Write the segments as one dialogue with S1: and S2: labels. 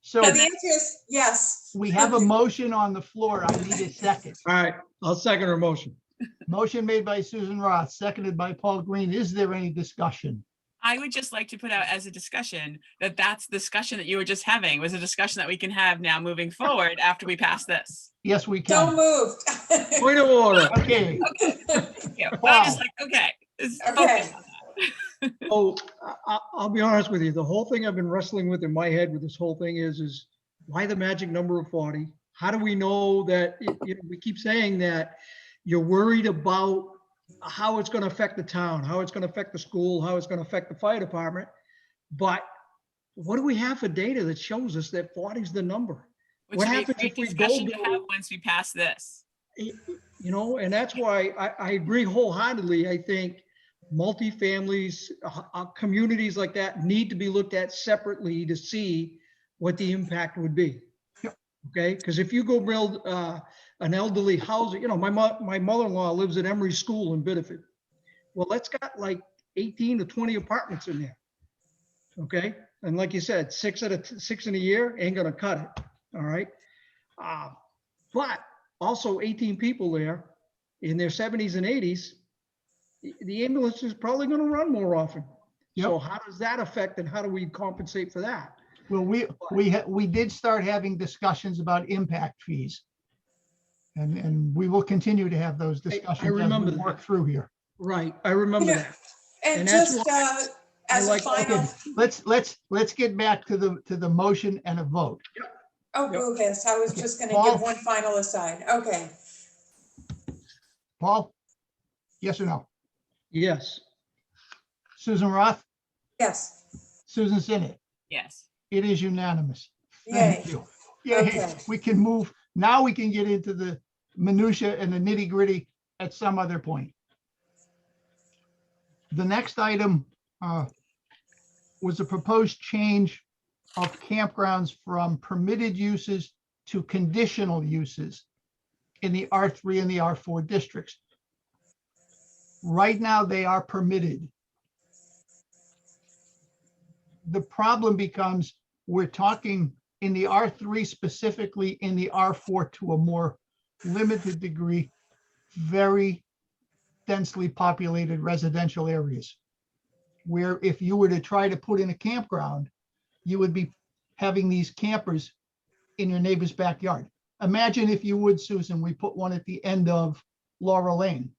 S1: So
S2: So the answer is yes.
S1: we have a motion on the floor. I need a second.
S3: All right, I'll second her motion.
S1: Motion made by Susan Roth, seconded by Paul Green. Is there any discussion?
S4: I would just like to put out as a discussion that that's the discussion that you were just having was a discussion that we can have now moving forward after we pass this.
S1: Yes, we
S2: Don't
S1: can.
S2: move.
S3: Point of order.
S1: Okay,
S4: Thank you. But I'm just
S1: Wow.
S4: like, okay. it's
S2: Okay.
S4: focused on that.
S3: Oh, I- I, I'll be honest with you, the whole thing I've been wrestling with in my head with this whole thing is, is why the magic number of 40? How do we know that, it- you know, we keep saying that you're worried about how it's gonna affect the town, how it's gonna affect the school, how it's gonna affect the fire department. But what do we have for data that shows us that 40 is the number?
S4: Which
S3: What
S4: would be a
S3: happens
S4: great
S3: if we
S4: discussion to
S3: don't
S4: have
S3: do-
S4: once we pass this.
S3: You know, and that's why I, I agree wholeheartedly. I think multifamilies, uh, uh, communities like that need to be looked at separately to see what the impact would be. Okay, because if you go build, uh, an elderly housing, you know, my mo- my mother-in-law lives at Emory School in Biddeford. Well, that's got like eighteen to twenty apartments in there. Okay, and like you said, six at a, t- six in a year ain't gonna cut it, all right? Uh, but also 18 people there in their 70s and 80s, the- the ambulance is probably going to run more often. So how does that affect and how do we compensate for that?
S1: well, we, we, ha- we did start having discussions about impact fees. And, and we will continue to have those discussions as
S3: remember
S1: we
S3: that.
S1: work through here.
S3: Right, I remember
S2: Yeah.
S3: that.
S2: And
S3: And that's
S2: just,
S3: why
S2: uh, as a
S3: like-
S2: final,
S1: Let's, let's, let's get back to the, to the motion and a vote.
S2: oh, boo hiss, I was
S1: Okay,
S2: just gonna
S1: Paul?
S2: give one final aside. Okay,
S1: Paul? Yes or no?
S3: Yes,
S1: Susan Roth?
S2: yes,
S1: Susan Sinnet?
S4: Yes.
S1: It is unanimous.
S2: yay.
S1: Thank you. Yeah,
S2: Okay.
S1: we can move, now we can get into the minutia and the nitty gritty at some other point. The next item uh, was a proposed change of campgrounds from permitted uses to conditional uses in the R3 and the R4 districts. Right now, they are permitted. The problem becomes, we're talking in the R3 specifically, in the R4 to a more limited degree, very densely populated residential areas. Where if you were to try to put in a campground, you would be having these campers in your neighbor's backyard. Imagine if you would, Susan, we put one at the end of Laurel Lane.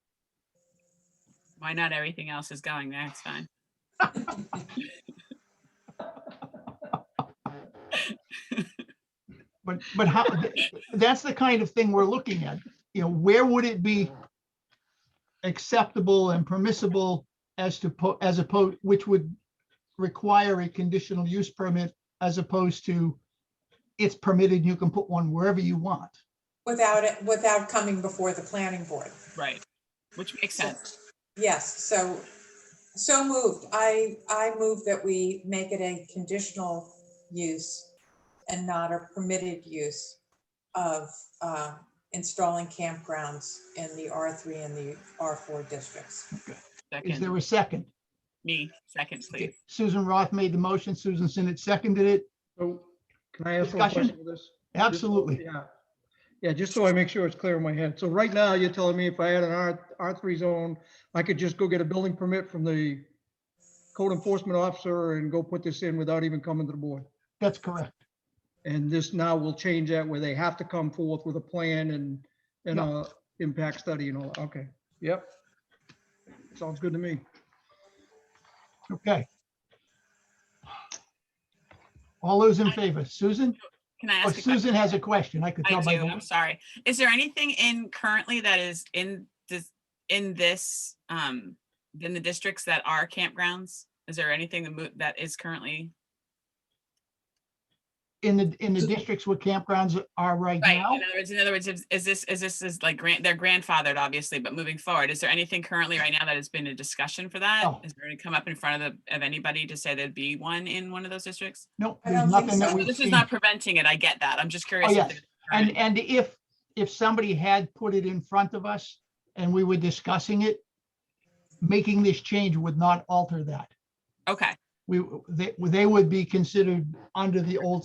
S4: Why not? Everything else is going there. It's fine.
S1: But, but how, th- that's the kind of thing we're looking at, you know, where would it be acceptable and permissible as to, po- as opposed, which would require a conditional use permit as opposed to it's permitted, you can put one wherever you want.
S2: Without it, without coming before the planning board.
S4: Right. Which makes sense.
S2: Yes, so, so moved. I, I move that we make it a conditional use and not a permitted use of uh, installing campgrounds in the R3 and the R4 districts.
S1: Is
S4: Second,
S1: there a second?
S4: me, second, please.
S1: Susan Roth made the motion, Susan Sinnet seconded it.
S3: so can I ask one
S1: Discussion?
S3: question with this? Just so-
S1: Absolutely.
S3: Yeah, yeah, just so I make sure it's clear in my head. So right now, you're telling me if I had an R, R3 zone, I could just go get a building permit from the code enforcement officer and go put this in without even coming to the board?
S1: That's correct.
S3: And this now will change that where they have to come forth with a plan and, and
S1: Yeah.
S3: a impact study and all. that. Okay, yep. Sounds good to me.
S1: Okay. All those in favor? Susan?
S4: Can I
S1: Oh,
S4: ask? a question?
S1: Susan has a question. I could
S4: I
S1: tell by
S4: do,
S1: the
S4: I'm sorry. Is there anything in currently that is in this, in this, um, in the districts that are campgrounds? Is there anything that mo- that is currently?
S1: in the, in the districts where campgrounds are right
S4: Right, in
S1: now,
S4: other words, in other words, is is this, is this is like grant, they're grandfathered, obviously, but moving forward, is there anything currently right now that has been a discussion for that?
S1: No.
S4: Is there any come up in front of the, of anybody to say there'd be one in one of those districts?
S1: no,
S2: I
S1: there's
S2: don't think
S1: nothing that
S2: so.
S1: we've
S4: This is
S1: seen.
S4: not preventing it, I get that, I'm just curious.
S1: Oh,
S4: if
S1: yes.
S4: there's
S1: And,
S4: current-
S1: and if, if somebody had put it in front of us and we were discussing it, making this change would not alter that.
S4: Okay.
S1: We, they, they would be considered under the old